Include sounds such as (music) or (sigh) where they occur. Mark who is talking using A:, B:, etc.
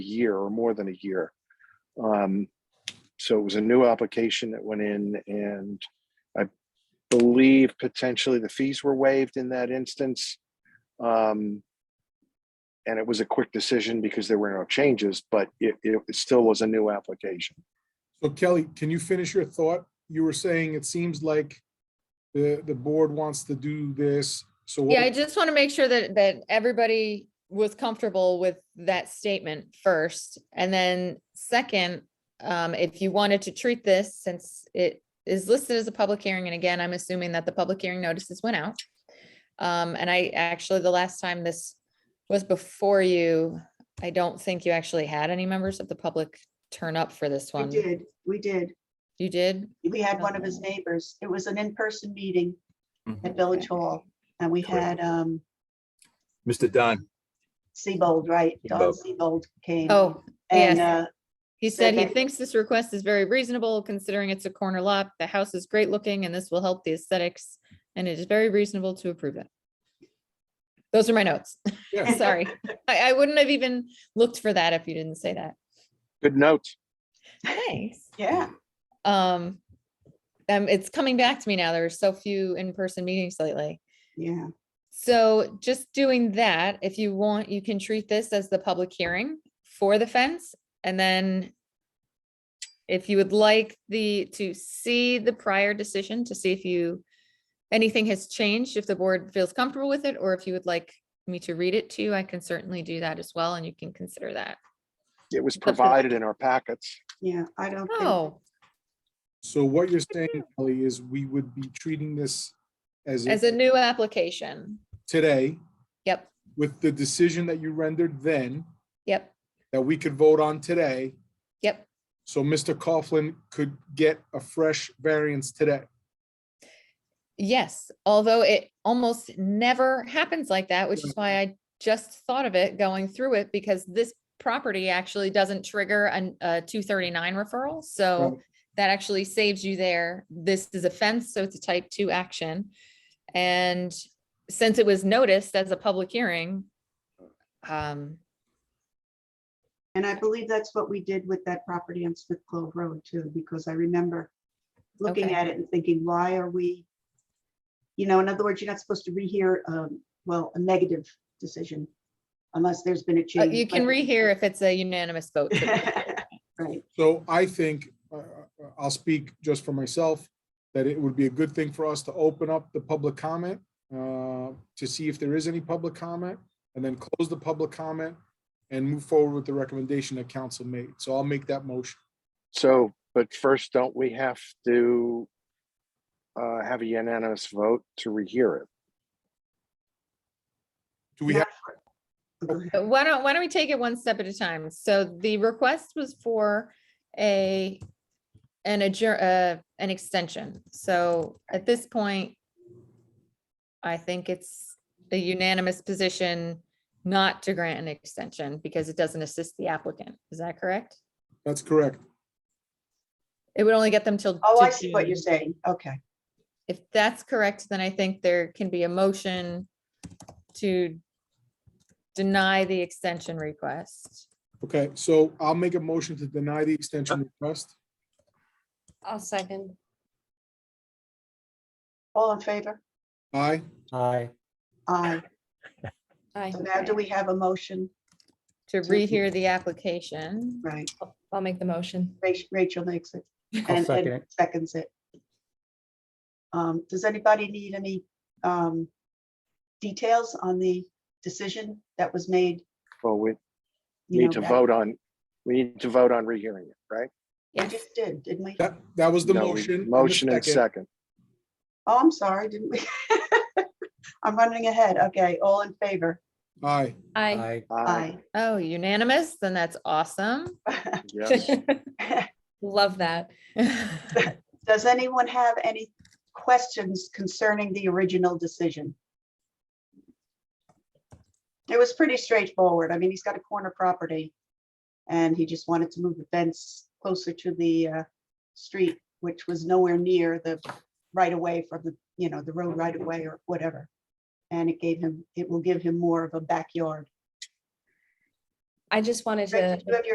A: year or more than a year. Um, So it was a new application that went in and I believe potentially the fees were waived in that instance. Um, And it was a quick decision because there were no changes, but it, it still was a new application.
B: So Kelly, can you finish your thought? You were saying it seems like the, the board wants to do this, so. what
C: Yeah,
B: we-
C: I just want to make sure that, that everybody was comfortable with that statement first. And then second, um, if you wanted to treat this, since it is listed as a public hearing, and again, I'm assuming that the public hearing notices went out. Um, and I actually, the last time this was before you, I don't think you actually had any members of the public turn up for this
D: We
C: one.
D: did, we did.
C: You did?
D: We had one of his
C: Um,
D: neighbors. It was an in-person meeting at
E: Mhm.
D: Village Hall and we had, um,
E: Mr. Don,
D: Sebold, right? Don
E: Sebold.
D: Sebold came.
C: Oh,
D: And,
C: yes.
D: uh,
C: He said he
D: Okay.
C: thinks this request is very reasonable considering it's a corner lot. The house is great looking and this will help the aesthetics. And it is very reasonable to approve it. Those are my notes. (laughs)
B: Yeah.
C: Sorry. I, I wouldn't have even looked for that if you didn't say that.
A: Good note.
C: Thanks.
D: yeah,
C: Um, um, it's coming back to me now. There were so few in-person meetings lately.
D: yeah.
C: So just doing that, if you want, you can treat this as the public hearing for the fence and then if you would like the, to see the prior decision to see if you, anything has changed, if the board feels comfortable with it, or if you would like me to read it to you, I can certainly do that as well and you can consider that.
A: It was
C: That's good.
A: provided in our packets.
D: Yeah, I don't think,
C: Oh,
B: So what you're saying, Kelly, is we would be treating this as,
C: as
B: of
C: a new application.
B: today,
C: Yep,
B: with the decision that you rendered then,
C: yep,
B: that we could vote on today,
C: yep.
B: so Mr. Coughlin could get a fresh variance today.
C: Yes, although it almost never happens like that, which is why I just thought of it going through it because this property actually doesn't trigger an- a two thirty-nine referral, so that actually saves you there. This is a fence, so it's a type two action. And since it was noticed as a public hearing, um,
D: and I believe that's what we did with that property on Smith Clove Road too, because I remember looking
C: Okay.
D: at it and thinking, why are we? You know, in other words, you're not supposed to rehear, um, well, a negative decision unless there's been a
C: uh,
D: change.
C: you can
D: but-
C: rehear if it's a unanimous (laughs) vote.
D: (laughs) Right,
B: So I think, uh, uh, I'll speak just for myself, that it would be a good thing for us to open up the public comment uh, to see if there is any public comment, and then close the public comment and move forward with the recommendation that council made. So I'll make that motion.
A: So, but first, don't we have to uh, have a unanimous vote to rehear it?
B: Do we have,
D: Go ahead.
C: But Why don't, why don't we take it one step at a time? So the request was for a, an adjourn, uh, an extension. So at this point, I think it's a unanimous position not to grant an extension because it doesn't assist the applicant. Is that correct?
B: that's correct.
C: It would only get them till.
D: Oh,
C: to
D: I see what you're
C: June.
D: saying. Okay.
C: If that's correct, then I think there can be a motion to deny the extension request.
B: Okay, so I'll make a motion to deny the extension request.
F: I'll second.
D: All in favor?
B: Aye,
G: Aye,
D: Aye.
F: Aye.
D: So now do we have a motion?
C: To
D: So we-
C: rehear the application.
D: Right.
F: I'll make the motion.
D: Rach- Rachel makes it
G: I'll
D: and-
G: second
D: and
G: it.
D: seconds it. Um, Does anybody need any um, details on the decision that was made?
A: Well, we
D: you
A: need
D: know,
A: to
D: back-
A: vote on, we need to vote on rehearing it, right?
D: We
C: Yes,
D: just did, didn't we?
B: that, that was the
A: No, we-
B: motion. and the
A: Motion and second.
D: Oh, I'm sorry, didn't we? (laughs) I'm running ahead. Okay, all in favor? (laughs)
B: Aye,
F: (laughs) Aye.
G: aye,
A: Aye.
D: Aye.
C: oh, unanimous, then that's awesome. (laughs)
A: Yes.
F: Love that.
D: Does anyone have any questions concerning the original decision? It was pretty straightforward. I mean, he's got a corner property. And he just wanted to move the fence closer to the uh, street, which was nowhere near the right of way from the, you know, the road right of way or whatever. And it gave him, it will give him more of a backyard.
H: I just wanted
F: Rick,
H: to.
F: did you have your